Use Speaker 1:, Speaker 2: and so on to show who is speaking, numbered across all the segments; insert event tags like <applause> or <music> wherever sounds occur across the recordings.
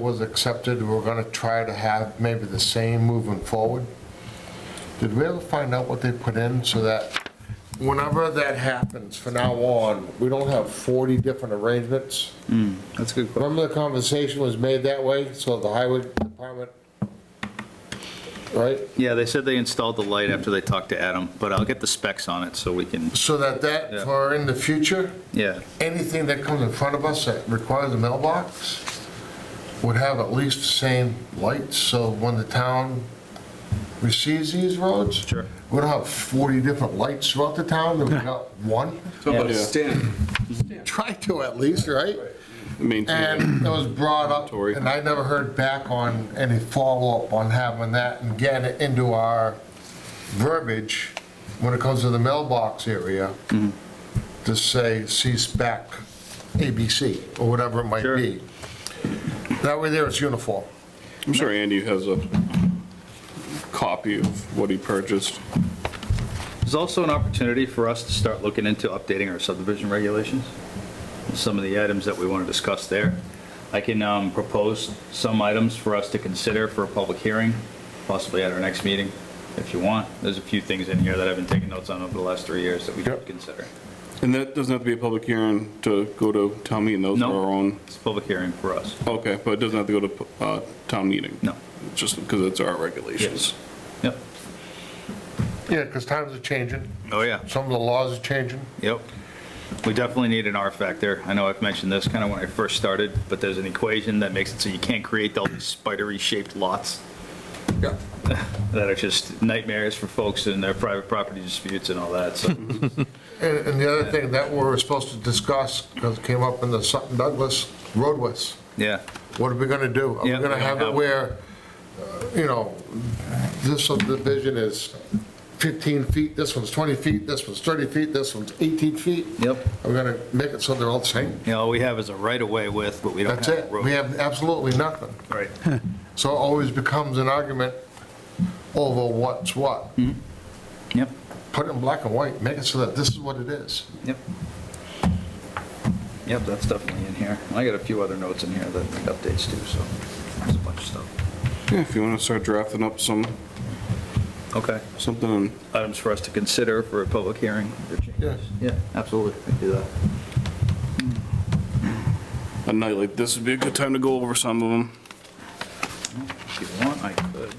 Speaker 1: was accepted, we're gonna try to have maybe the same moving forward. Did we ever find out what they put in so that whenever that happens from now on, we don't have 40 different arrangements?
Speaker 2: That's a good question.
Speaker 1: Remember the conversation was made that way, so the highway department, right?
Speaker 2: Yeah, they said they installed the light after they talked to Adam, but I'll get the specs on it so we can,
Speaker 1: So that that,
Speaker 2: Yeah.
Speaker 1: for in the future,
Speaker 2: yeah.
Speaker 1: anything that comes in front of us that requires a mailbox would have at least the same lights, so when the town receives these roads.
Speaker 2: Sure.
Speaker 1: We don't have 40 different lights throughout the town, that we got one.
Speaker 3: How about Stan?
Speaker 1: Try to at least, right?
Speaker 3: Maintain.
Speaker 1: <clears throat> And it was brought up,
Speaker 3: Tory.
Speaker 1: and I never heard back on any follow-up on having that and getting it into our verbiage when it comes to the mailbox area, to say C-SPAC, ABC, or whatever it might
Speaker 2: Sure.
Speaker 1: be. That way there it's uniform.
Speaker 3: I'm sure Andy has a copy of what he purchased.
Speaker 2: There's also an opportunity for us to start looking into updating our subdivision regulations, some of the items that we want to discuss there. I can um, propose some items for us to consider for a public hearing, possibly at our next meeting, if you want. There's a few things in here that I've been taking notes on over the last three years that we could consider.
Speaker 3: And that doesn't have to be a public hearing to go to town meeting, those are
Speaker 2: No.
Speaker 3: our own.
Speaker 2: It's a public hearing for us.
Speaker 3: Okay, but it doesn't have to go to uh, town meeting?
Speaker 2: No.
Speaker 3: Just because it's our regulations.
Speaker 2: Yep.
Speaker 1: Yeah, because times are changing,
Speaker 2: Oh, yeah.
Speaker 1: some of the laws are changing.
Speaker 2: Yep. We definitely need an R factor. I know I've mentioned this kind of when I first started, but there's an equation that makes it so you can't create all these spidery shaped lots
Speaker 1: Yeah.
Speaker 2: <laughs> that are just nightmares for folks in their private property disputes and all
Speaker 1: <laughs>
Speaker 2: that, so.
Speaker 1: And, and the other thing that we were supposed to discuss, because it came up in the Sutton Douglas roadways.
Speaker 2: Yeah,
Speaker 1: What are we gonna do? Are we
Speaker 2: Yeah, Um,
Speaker 1: gonna
Speaker 2: we
Speaker 1: have
Speaker 2: don't
Speaker 1: it
Speaker 2: have-
Speaker 1: where, uh, you know, this subdivision is 15 feet, this one's 20 feet, this one's 30 feet, this one's 18 feet?
Speaker 2: Yep.
Speaker 1: Are we gonna make it so they're all the same?
Speaker 2: you know, all we have is a right of way with, but we don't
Speaker 1: That's
Speaker 2: have a
Speaker 1: it.
Speaker 2: road.
Speaker 1: We have absolutely nothing.
Speaker 2: Right.
Speaker 1: So it always becomes an argument over what's what.
Speaker 2: Mm-hmm. Yep,
Speaker 1: Put it in black and white, make it so that this is what it is.
Speaker 2: yep. Yep, that's definitely in here. I got a few other notes in here that need updates too, so there's a bunch of stuff.
Speaker 3: Yeah, if you want to start drafting up some,
Speaker 2: Okay.
Speaker 3: something on
Speaker 2: items for us to consider for a public hearing or
Speaker 1: Yeah.
Speaker 2: changes. Yeah, absolutely, we can do that.
Speaker 3: a night like this would be a good time to go over some of them.
Speaker 2: If you want, I could.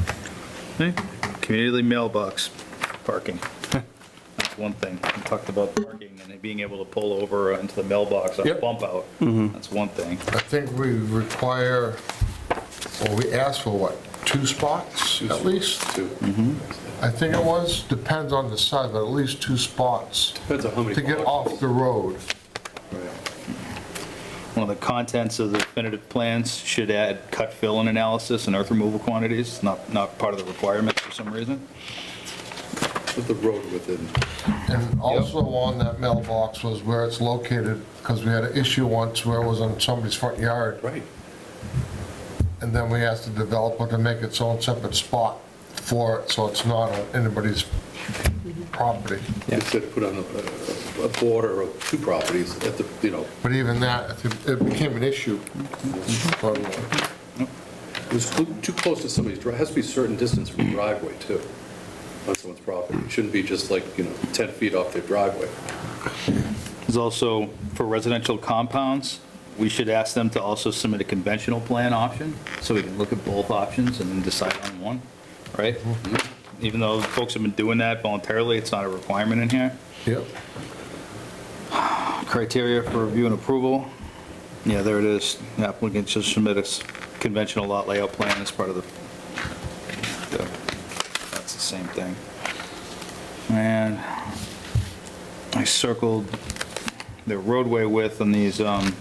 Speaker 2: Hmm, Community mailbox, parking. That's one thing. We talked about parking and being able to pull over into the mailbox on a
Speaker 1: Yep.
Speaker 2: bump out. That's one thing.
Speaker 1: I think we require, or we ask for what, two spots at least? Mm-hmm. I think it was, depends on the size, but at least two spots
Speaker 4: Depends on how many.
Speaker 1: to get
Speaker 4: blocks.
Speaker 1: off the road.
Speaker 2: One of the contents of the definitive plans should add cut fill and analysis and earth removal quantities, not, not part of the requirements for some reason.
Speaker 4: Put the road within.
Speaker 1: And also on that mailbox was where it's located, because we had an issue once where it was on somebody's front yard.
Speaker 4: Right.
Speaker 1: And then we asked the developer to make its own separate spot for it, so it's not on anybody's property.
Speaker 4: Instead of put on a- a, a border of two properties at the, you know,
Speaker 1: But even that, it- it became an issue. Mm-hmm.
Speaker 4: it was too- too close to somebody's driveway. Has to be a certain distance from the driveway too, on someone's property. It shouldn't be just like, you know, 10 feet off their driveway.
Speaker 2: There's also, for residential compounds, we should ask them to also submit a conventional plan option, so we can look at both options and then decide on one, right? Even though folks have been doing that voluntarily, it's not a requirement in here.
Speaker 1: Yep.
Speaker 2: Criteria for review and approval, yeah, there it is. The Applicant should submit a s- conventional lot layout plan as part of the, the- that's the same thing. And I circled the roadway width on these, um,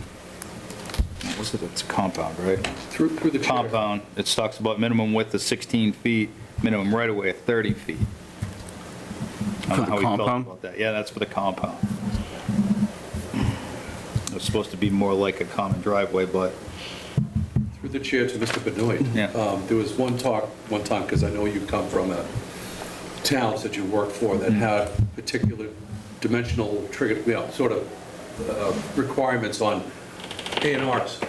Speaker 2: what was it, it's a compound, right?
Speaker 4: Through, through the chair.
Speaker 2: Compound, it talks about minimum width of 16 feet, minimum right of way of 30 feet. I
Speaker 3: For
Speaker 2: don't
Speaker 3: the
Speaker 2: know how we felt
Speaker 3: compound?
Speaker 2: about that. Yeah, that's for the compound. It's supposed to be more like a common driveway, but,
Speaker 4: Through the chair to Mr. Benoit.
Speaker 2: Yeah.
Speaker 4: Um, There was one talk, one time, because I know you come from a towns that you worked for that had particular dimensional trigger, you know, sort of uh, requirements on A and Rs.